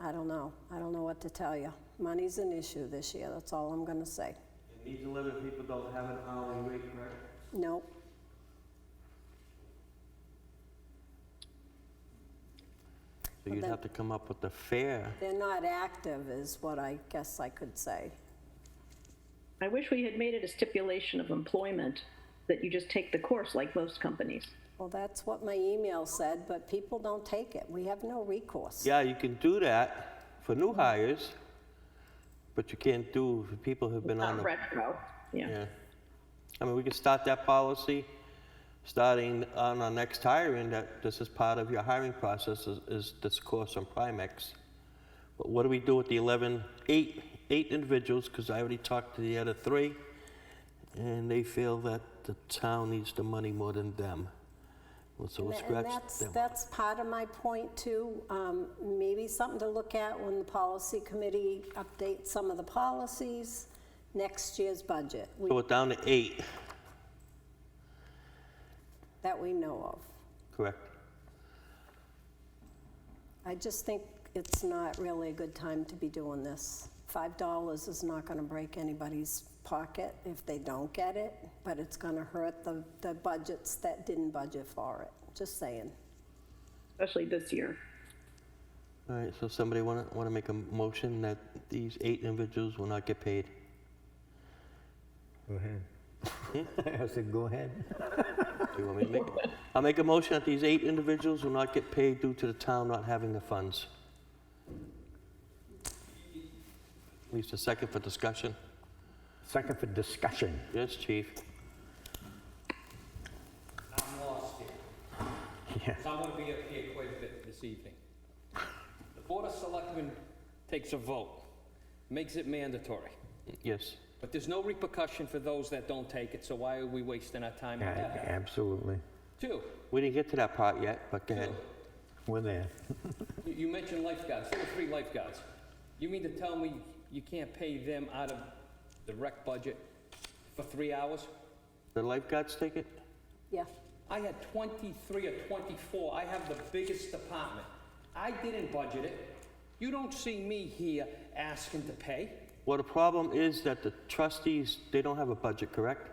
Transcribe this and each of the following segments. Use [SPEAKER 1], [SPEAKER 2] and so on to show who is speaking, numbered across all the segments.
[SPEAKER 1] I don't know. I don't know what to tell you. Money's an issue this year, that's all I'm gonna say.
[SPEAKER 2] And these 11 people don't have an hourly rate, correct?
[SPEAKER 1] Nope,
[SPEAKER 2] So you'd
[SPEAKER 1] then-
[SPEAKER 2] have to come up with the fair.
[SPEAKER 1] they're not active is what I guess I could say.
[SPEAKER 3] I wish we had made it a stipulation of employment that you just take the course like most companies.
[SPEAKER 1] Well, that's what my email said, but people don't take it. We have no recourse.
[SPEAKER 2] Yeah, you can do that for new hires, but you can't do for people who've been on
[SPEAKER 3] Not
[SPEAKER 2] the.
[SPEAKER 3] retro, yeah.
[SPEAKER 2] Yeah. I mean, we can start that policy, starting on our next hiring, that this is part of your hiring process, is- is this course on Primex. But what do we do with the 11, eight, eight individuals, because I already talked to the other three, and they feel that the town needs the money more than them. Well, So we'll
[SPEAKER 1] And
[SPEAKER 2] scratch
[SPEAKER 1] that's,
[SPEAKER 2] them.
[SPEAKER 1] that's part of my point too. Um, Maybe something to look at when the policy committee updates some of the policies, next year's budget, we-
[SPEAKER 2] So we're down to eight,
[SPEAKER 1] that we know of.
[SPEAKER 2] correct?
[SPEAKER 1] I just think it's not really a good time to be doing this. $5 is not going to break anybody's pocket if they don't get it, but it's going to hurt the, the budgets that didn't budget for it. Just saying.
[SPEAKER 3] Especially this year.
[SPEAKER 2] All right, so somebody want to, want to make a motion that these eight individuals will not get paid?
[SPEAKER 4] Go ahead. I said, go ahead.
[SPEAKER 2] Do you want me to make it? I'll make a motion that these eight individuals will not get paid due to the town not having the funds. At least a second for discussion.
[SPEAKER 4] Second for discussion.
[SPEAKER 2] Yes, chief.
[SPEAKER 5] I'm lost here,
[SPEAKER 4] Yeah.
[SPEAKER 5] 'cause I'm gonna be up here quite a bit this evening. The Board of Selectmen takes a vote, makes it mandatory,
[SPEAKER 2] Yes.
[SPEAKER 5] but there's no repercussion for those that don't take it, so why are we wasting our time on
[SPEAKER 4] Yeah,
[SPEAKER 5] that?
[SPEAKER 4] Absolutely.
[SPEAKER 5] Two,
[SPEAKER 2] We didn't get to that part yet, but go ahead.
[SPEAKER 4] We're there.
[SPEAKER 5] you- you mentioned lifeguards, there were three lifeguards. You mean to tell me you can't pay them out of the rec budget for three hours?
[SPEAKER 2] The lifeguards take it?
[SPEAKER 1] Yeah.
[SPEAKER 5] I had 23 or 24. I have the biggest department. I didn't budget it. You don't see me here asking to pay.
[SPEAKER 2] Well, the problem is that the trustees, they don't have a budget, correct?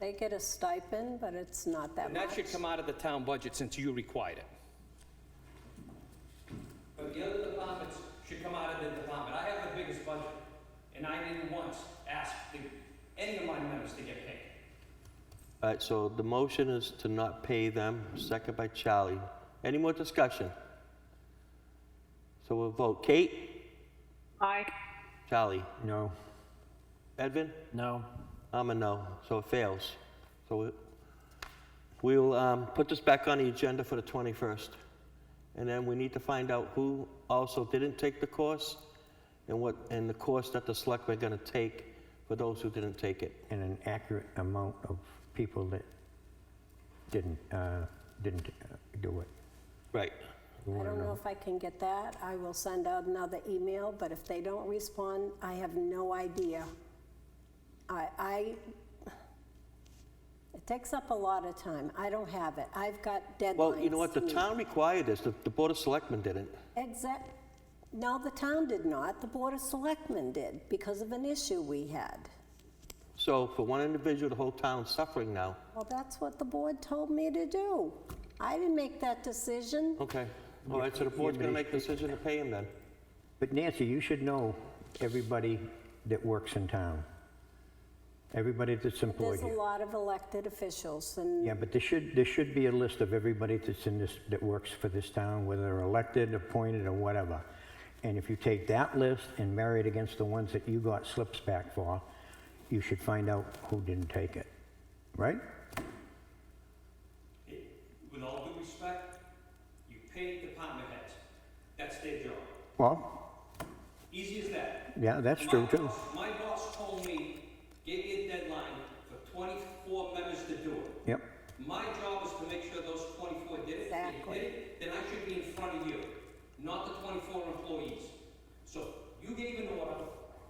[SPEAKER 1] They get a stipend, but it's not that
[SPEAKER 5] And
[SPEAKER 1] much.
[SPEAKER 5] that should come out of the town budget since you required it. But the other departments should come out of the department. I have the biggest budget, and I didn't once ask the- any of my members to get paid.
[SPEAKER 2] All right, so the motion is to not pay them, second by Charlie. Any more discussion? So we'll vote. Kate?
[SPEAKER 3] Aye.
[SPEAKER 2] Charlie?
[SPEAKER 4] No.
[SPEAKER 2] Edvin?
[SPEAKER 6] No.
[SPEAKER 2] I'm a no, so it fails. So we- we will um, put this back on the agenda for the 21st. And then we need to find out who also didn't take the course and what, and the course that the selectmen are going to take for those who didn't take it.
[SPEAKER 4] And an accurate amount of people that didn't, uh, didn't uh, do it.
[SPEAKER 2] Right.
[SPEAKER 4] We
[SPEAKER 1] I
[SPEAKER 4] wanna
[SPEAKER 1] don't know if I can get that. I will send out another email, but if they don't respond, I have no idea. I, I, it takes up a lot of time. I don't have it. I've got deadlines.
[SPEAKER 2] Well, you know what, the
[SPEAKER 1] to meet.
[SPEAKER 2] town required this, the the Board of Selectmen didn't.
[SPEAKER 1] Exact, no, the town did not. The Board of Selectmen did because of an issue we had.
[SPEAKER 2] So for one individual, the whole town's suffering now.
[SPEAKER 1] Well, that's what the board told me to do. I didn't make that decision.
[SPEAKER 2] Okay. All right, so the board's going to make the decision to pay him then.
[SPEAKER 4] But Nancy, you should know everybody that works in town. Everybody that's employed
[SPEAKER 1] There's a
[SPEAKER 4] here.
[SPEAKER 1] lot of elected officials and
[SPEAKER 4] Yeah, but there should, there should be a list of everybody that's in this, that works for this town, whether they're elected, appointed, or whatever. And if you take that list and marry it against the ones that you got slips back for, you should find out who didn't take it, right?
[SPEAKER 5] With all due respect, you pay department heads. That's their job.
[SPEAKER 4] Well,
[SPEAKER 5] Easy as that.
[SPEAKER 4] yeah, that's
[SPEAKER 5] My
[SPEAKER 4] true too.
[SPEAKER 5] boss- My boss told me, gave me a deadline for 24 members to do it.
[SPEAKER 4] Yep,
[SPEAKER 5] My job is to make sure those 24 did it. If they
[SPEAKER 1] Exactly.
[SPEAKER 5] did it, Then I should be in front of you, not the 24 employees. So you gave an order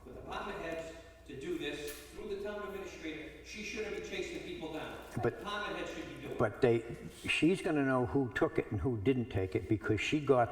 [SPEAKER 5] with department heads to do this through the town administrator. She shouldn't be chasing people down.
[SPEAKER 4] But-
[SPEAKER 5] Department heads should be doing it.
[SPEAKER 4] but they, she's gonna know who took it and who didn't take it because she got